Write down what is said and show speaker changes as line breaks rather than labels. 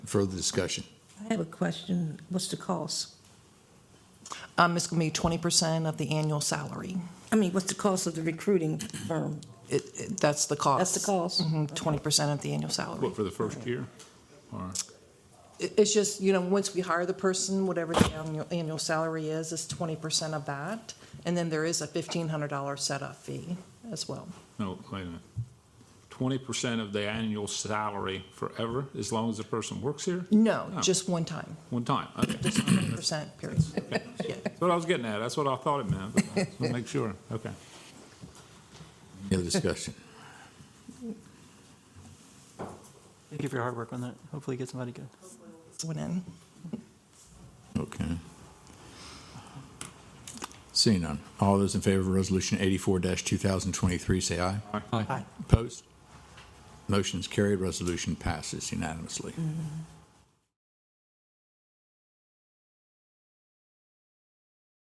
further discussion.
I have a question. What's the cost?
Um, It's going to be 20% of the annual salary.
I mean, what's the cost of the recruiting firm?
It- it- That's the cost.
That's the cost?
Mhm, 20% of the annual salary.
What, for the first year? Or,
It- It's just, you know, once we hire the person, whatever the annual- annual salary is, it's 20% of that. And then there is a $1,500 setup fee as well.
no, wait a minute. Twenty percent of the annual salary forever, as long as the person works here,
No,
Oh.
just one time,
one time? Okay,
just 20%, period. Yeah.
That's what I was getting at. That's what I thought it meant. but I just wanna Make sure, okay.
Any other discussion?
Thank you for your hard work on that. Hopefully get somebody good.
Went in.
Okay. Seeing none. All those in favor of Resolution 84-2023, say aye.
Aye.
Opposed? Motion's carried, resolution passes unanimously.